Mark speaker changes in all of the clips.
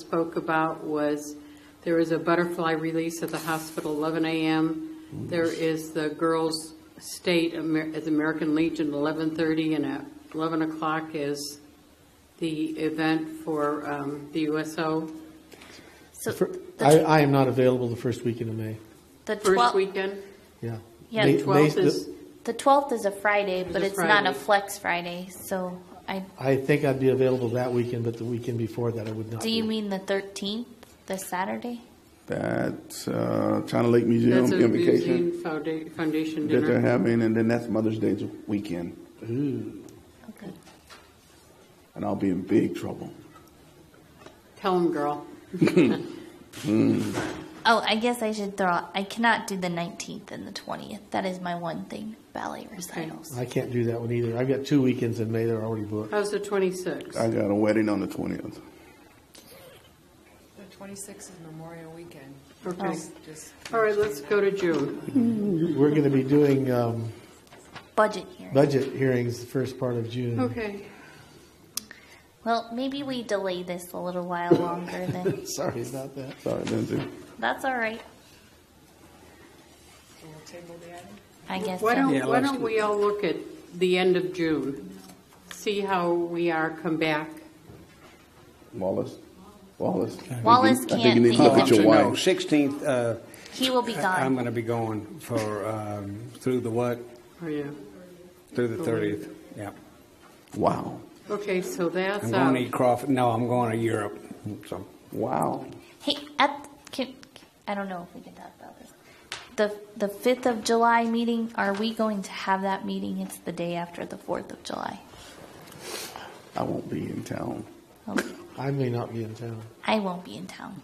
Speaker 1: spoke about was, there is a butterfly release at the hospital, 11 a.m. There is the girls' state Amer- at the American Legion, 11:30, and at 11 o'clock is the event for um, the USO,
Speaker 2: So
Speaker 3: Fir-
Speaker 2: the,
Speaker 3: I, I am not available the first weekend of May,
Speaker 2: the
Speaker 1: first
Speaker 2: 12th,
Speaker 1: weekend.
Speaker 3: yeah.
Speaker 2: Yeah,
Speaker 3: May-
Speaker 2: the
Speaker 3: May's
Speaker 1: 12th
Speaker 3: the-
Speaker 1: is,
Speaker 2: the 12th is a Friday, but
Speaker 1: a
Speaker 2: it's not a
Speaker 1: Friday.
Speaker 2: flex Friday. So I,
Speaker 3: I think I'd be available that weekend, but the weekend before that I would not
Speaker 2: do you
Speaker 3: be.
Speaker 2: mean the 13th, the Saturday?
Speaker 4: That's uh, China Lake Museum
Speaker 1: that's a
Speaker 4: invocation
Speaker 1: museum founda- foundation
Speaker 4: that they're
Speaker 1: dinner.
Speaker 4: having, and then that's Mother's Day weekend,
Speaker 2: Okay.
Speaker 4: and I'll be in big trouble.
Speaker 1: Tell them, girl.
Speaker 2: Oh, I guess I should throw out, I cannot do the 19th and the 20th. That is my one thing, ballet recitals.
Speaker 3: I can't do that one either. I've got two weekends in May that are already booked.
Speaker 1: How's the 26th?
Speaker 4: I got a wedding on the twentieth.
Speaker 5: The 26th is Memorial Weekend.
Speaker 1: Okay.
Speaker 5: Just
Speaker 1: All right, let's go to June.
Speaker 3: We're gonna be doing, um,
Speaker 2: Budget here.
Speaker 3: budget hearings the first part of June.
Speaker 1: Okay.
Speaker 2: Well, maybe we delay this a little while longer then.
Speaker 3: Sorry about that.
Speaker 4: Sorry, Lindsay.
Speaker 2: That's all right.
Speaker 5: we'll table the item.
Speaker 2: I guess
Speaker 1: Why
Speaker 2: so.
Speaker 1: don't, why don't we all look at the end of June? See how we are, come back.
Speaker 4: Wallace. Wallace.
Speaker 2: Wallace
Speaker 4: I think you-
Speaker 2: can't
Speaker 4: I think you need to look
Speaker 2: be-
Speaker 4: at your
Speaker 6: Oh, I'm sorry, No,
Speaker 4: wife.
Speaker 6: 16th, uh,
Speaker 2: He will be
Speaker 6: I- I'm
Speaker 2: gone.
Speaker 6: going to be going for, um, through the what?
Speaker 1: Are you?
Speaker 6: Through the 30th, yeah.
Speaker 4: Wow.
Speaker 1: Okay, so
Speaker 6: I'm
Speaker 1: that's
Speaker 6: going
Speaker 1: out.
Speaker 6: to eat crawfish, no, I'm going to Europe, so.
Speaker 4: Wow.
Speaker 2: Hey, at, can, I don't know if we can talk about this. The, the 5th of July meeting, are we going to have that meeting? It's the day after the 4th of July.
Speaker 4: I won't be in town.
Speaker 2: Okay.
Speaker 3: I may not be in town.
Speaker 2: I won't be in town.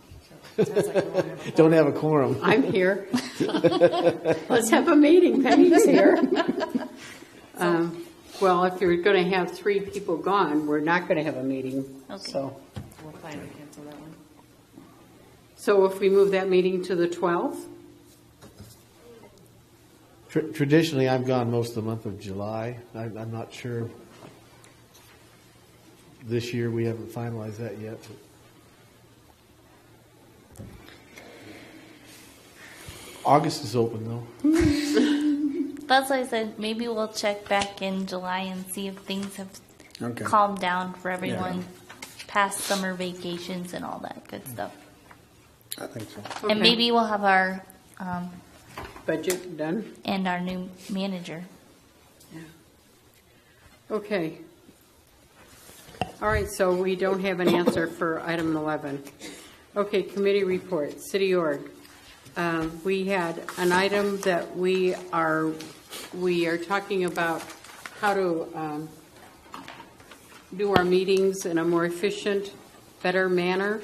Speaker 3: Don't have a quorum.
Speaker 1: I'm here. Let's have a meeting, Penny's here. Um, Well, if you're going to have three people gone, we're not going to have a meeting,
Speaker 2: Okay.
Speaker 1: so.
Speaker 5: We'll plan to cancel that one.
Speaker 1: So if we move that meeting to the 12th?
Speaker 3: Tr- Traditionally, I'm gone most of the month of July. I- I'm not sure. This year, we haven't finalized that yet. but- August is open, though.
Speaker 2: That's why I said maybe we'll check back in July and see if things have
Speaker 6: Okay.
Speaker 2: calmed down for everyone past summer vacations and all that good stuff.
Speaker 6: I think so.
Speaker 1: Okay.
Speaker 2: And maybe we'll have our um,
Speaker 1: Budget done?
Speaker 2: and our new manager.
Speaker 1: Okay. All right, so we don't have an answer for item 11. Okay, committee report, city org. Um, We had an item that we are, we are talking about how to um, do our meetings in a more efficient, better manner,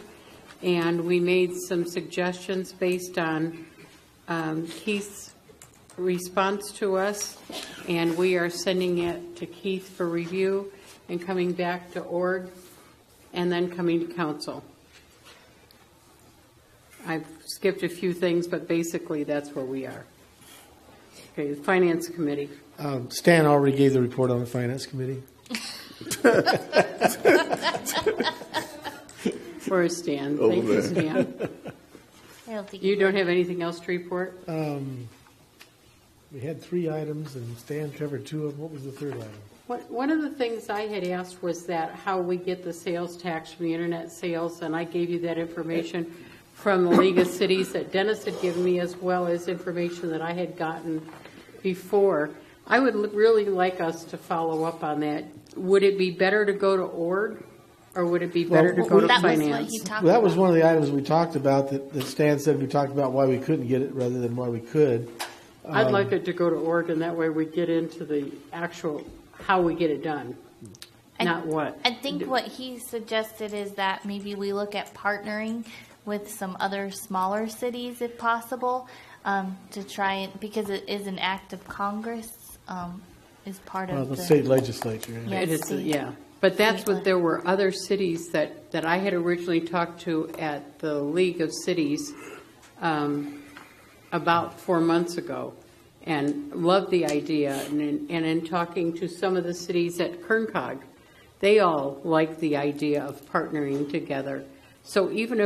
Speaker 1: and we made some suggestions based on um, Keith's response to us, and we are sending it to Keith for review and coming back to org, and then coming to council. I've skipped a few things, but basically, that's where we are. Okay, the Finance Committee.
Speaker 3: Um, Stan already gave the report on the Finance Committee.
Speaker 1: Where is Stan?
Speaker 4: Over
Speaker 1: Thank you,
Speaker 4: there.
Speaker 1: Stan.
Speaker 2: I don't think
Speaker 1: You don't have anything else to report?
Speaker 3: Um, We had three items, and Stan covered two of them. What was the third item?
Speaker 1: One- One of the things I had asked was that, how we get the sales tax from the internet sales, and I gave you that information from the League of Cities that Dennis had given me, as well as information that I had gotten before. I would l- really like us to follow up on that. Would it be better to go to org, or would it be better to
Speaker 3: Well,
Speaker 1: go to
Speaker 2: that was what
Speaker 1: finance?
Speaker 2: he talked
Speaker 3: Well, that
Speaker 2: about.
Speaker 3: was one of the items we talked about, that that Stan said we talked about why we couldn't get it rather than why we could.
Speaker 1: I'd
Speaker 2: Um,
Speaker 1: like it to go to org, and that way we get into the actual, how we get it done,
Speaker 2: I-
Speaker 1: not what.
Speaker 2: I think what he suggested is that maybe we look at partnering with some other smaller cities if possible um, to try it because it is an act of Congress um, is part
Speaker 3: Well,
Speaker 2: of
Speaker 3: the
Speaker 2: the,
Speaker 3: state legislature. yeah.
Speaker 2: Yeah.
Speaker 1: It is, uh,
Speaker 2: state.
Speaker 1: yeah. But that's what,
Speaker 2: State.
Speaker 1: there were other cities that, that I had originally talked to at the League of Cities um, about four months ago, and loved the idea. And in, and in talking to some of the cities at Kerncog, they all liked the idea of partnering together. So even if